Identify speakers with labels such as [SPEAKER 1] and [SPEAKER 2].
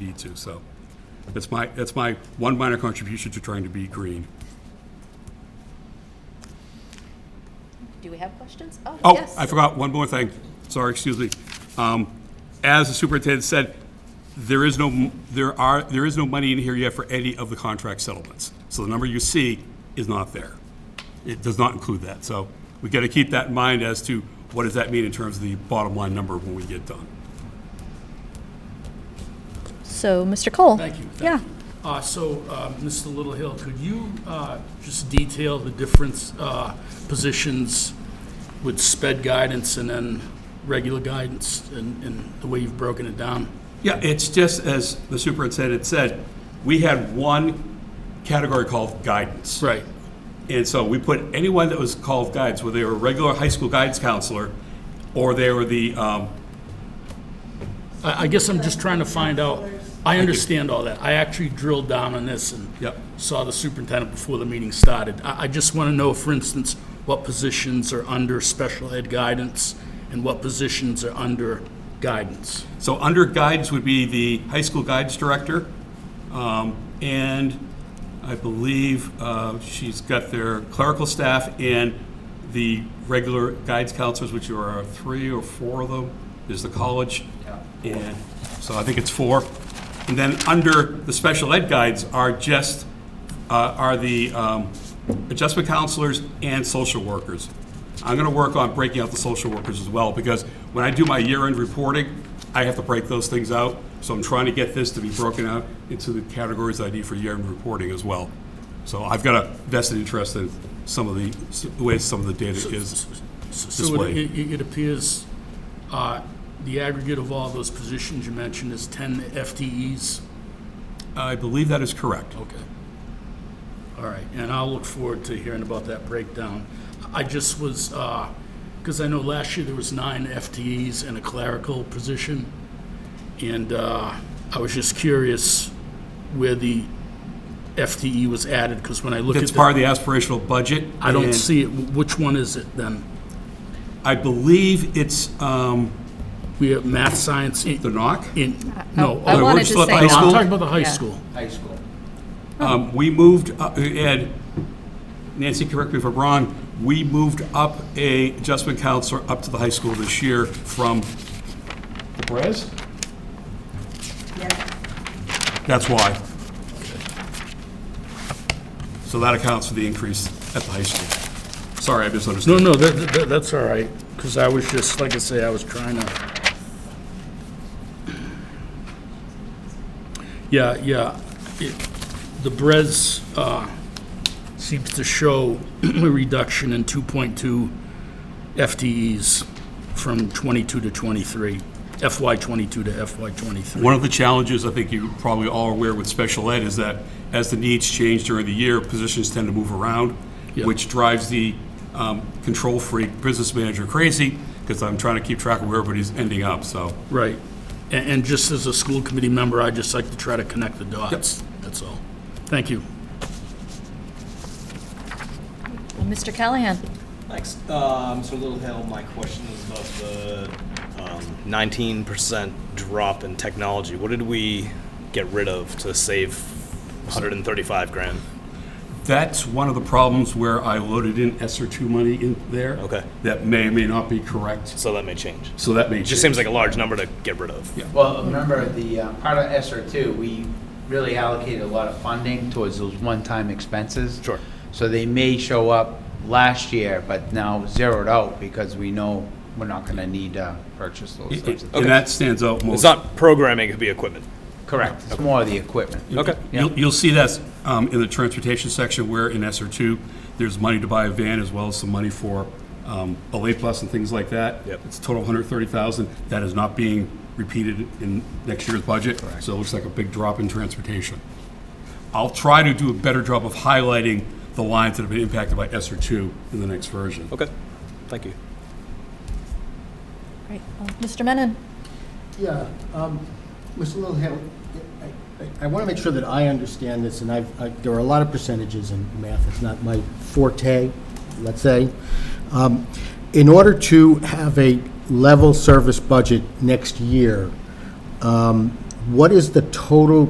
[SPEAKER 1] need to, so. That's my, that's my one minor contribution to trying to be green.
[SPEAKER 2] Do we have questions? Oh,
[SPEAKER 1] Oh,
[SPEAKER 2] yes.
[SPEAKER 1] I forgot one more thing. Sorry, excuse me. Um, As the superintendent said, there is no, there are, there is no money in here yet for any of the contract settlements. So the number you see is not there. It does not include that. So we got to keep that in mind as to what does that mean in terms of the bottom line number when we get done.
[SPEAKER 2] So, Mr. Cole?
[SPEAKER 3] Thank you, thank
[SPEAKER 2] Yeah.
[SPEAKER 3] Uh, So, uh, Mr. Littlehill, could you uh, just detail the different uh, positions with sped guidance and then regular guidance and and the way you've broken it down?
[SPEAKER 1] Yeah, it's just as the superintendent said, we had one category called guidance.
[SPEAKER 3] Right,
[SPEAKER 1] And so we put anyone that was called guides, whether they were a regular high school guidance counselor or they were the, um,
[SPEAKER 3] I I guess I'm just trying to find out, I understand all that. I actually drilled down on this and
[SPEAKER 1] Yep.
[SPEAKER 3] saw the superintendent before the meeting started. I I just want to know, for instance, what positions are under special ed guidance and what positions are under guidance?
[SPEAKER 1] so under guides would be the high school guides director. Um, and I believe, uh, she's got their clerical staff and the regular guides counselors, which are three or four of them, is the college. And so I think it's four. And then under the special ed guides are just uh, are the um, adjustment counselors and social workers. I'm going to work on breaking out the social workers as well, because when I do my year-end reporting, I have to break those things out. So I'm trying to get this to be broken out into the categories I need for year-end reporting as well. So I've got a vested interest in some of the, s- the ways some of the data is
[SPEAKER 3] So it-
[SPEAKER 1] displayed.
[SPEAKER 3] it, it appears uh, the aggregate of all those positions you mentioned is 10 FTEs?
[SPEAKER 1] I believe that is correct.
[SPEAKER 3] Okay. All right, and I'll look forward to hearing about that breakdown. I just was, because I know last year there was nine FTEs and a clerical position, and uh, I was just curious where the FTE was added, because when I look at
[SPEAKER 1] It's part
[SPEAKER 3] the,
[SPEAKER 1] of the aspirational budget.
[SPEAKER 3] I don't
[SPEAKER 1] and
[SPEAKER 3] see it. Which one is it then?
[SPEAKER 1] I believe it's um,
[SPEAKER 3] We have math, science, in,
[SPEAKER 1] the NOC.
[SPEAKER 3] no.
[SPEAKER 2] I
[SPEAKER 3] oh,
[SPEAKER 1] we're
[SPEAKER 2] wanted
[SPEAKER 1] still
[SPEAKER 2] to
[SPEAKER 1] at the
[SPEAKER 2] say
[SPEAKER 1] high
[SPEAKER 3] No, I'm
[SPEAKER 1] school?
[SPEAKER 3] talking about the high
[SPEAKER 2] Yeah.
[SPEAKER 3] school.
[SPEAKER 4] high school.
[SPEAKER 1] Um, We moved, uh, and Nancy, correct me if I'm wrong, we moved up a adjustment counselor up to the high school this year from the Perez? That's why. So that accounts for the increase at the high school. Sorry, I
[SPEAKER 3] No,
[SPEAKER 1] misunderstood.
[SPEAKER 3] no, that, that- that's all right, because I was just, like I say, I was trying to. Yeah, yeah, it, the Brez, uh, seems to show a reduction in two point two FTEs from twenty-two to twenty-three, FY twenty-two to FY twenty-three.
[SPEAKER 1] One of the challenges, I think you probably all are aware with special ed, is that as the needs change during the year, positions tend to move around,
[SPEAKER 3] Yeah.
[SPEAKER 1] which drives the um, control freak business manager crazy, because I'm trying to keep track of where everybody's ending up, so.
[SPEAKER 3] Right. And, and just as a school committee member, I just like to try to connect the dots, that's all. Thank you.
[SPEAKER 2] Mr. Callahan?
[SPEAKER 4] Thanks. Um, so Little Hill, my question is about the um, nineteen percent drop in technology. What did we get rid of to save one hundred and thirty-five grand?
[SPEAKER 1] That's one of the problems where I loaded in ESER two money in there.
[SPEAKER 4] Okay.
[SPEAKER 1] That may or may not be correct,
[SPEAKER 4] So that may change.
[SPEAKER 1] so that may
[SPEAKER 4] It
[SPEAKER 1] change.
[SPEAKER 4] just seems like a large number to get rid of.
[SPEAKER 1] Yeah.
[SPEAKER 5] Well, remember, the uh, part of SR two, we really allocated a lot of funding towards those one-time expenses.
[SPEAKER 4] Sure.
[SPEAKER 5] So they may show up last year, but now zeroed out because we know we're not gonna need to purchase those
[SPEAKER 1] It-
[SPEAKER 5] types
[SPEAKER 1] it-
[SPEAKER 5] of things.
[SPEAKER 1] And that stands out most.
[SPEAKER 4] It's not programming, it could be equipment.
[SPEAKER 5] Correct, it's more of the equipment.
[SPEAKER 4] Okay.
[SPEAKER 1] You'll, you'll see that um, in the transportation section where in ESER two, there's money to buy a van as well as some money for um, a late bus and things like that.
[SPEAKER 4] Yep.
[SPEAKER 1] It's a total of 130,000. That is not being repeated in next year's budget. So it looks like a big drop in transportation. I'll try to do a better job of highlighting the lines that have been impacted by ESER two in the next version.
[SPEAKER 4] Okay, thank you.
[SPEAKER 2] Right. Uh, Mr. Menon?
[SPEAKER 6] Yeah, um, Mr. Littlehill, I- I want to make sure that I understand this, and I've, I- there are a lot of percentages in math, it's not my forte, let's say. Um, In order to have a level service budget next year, um, what is the total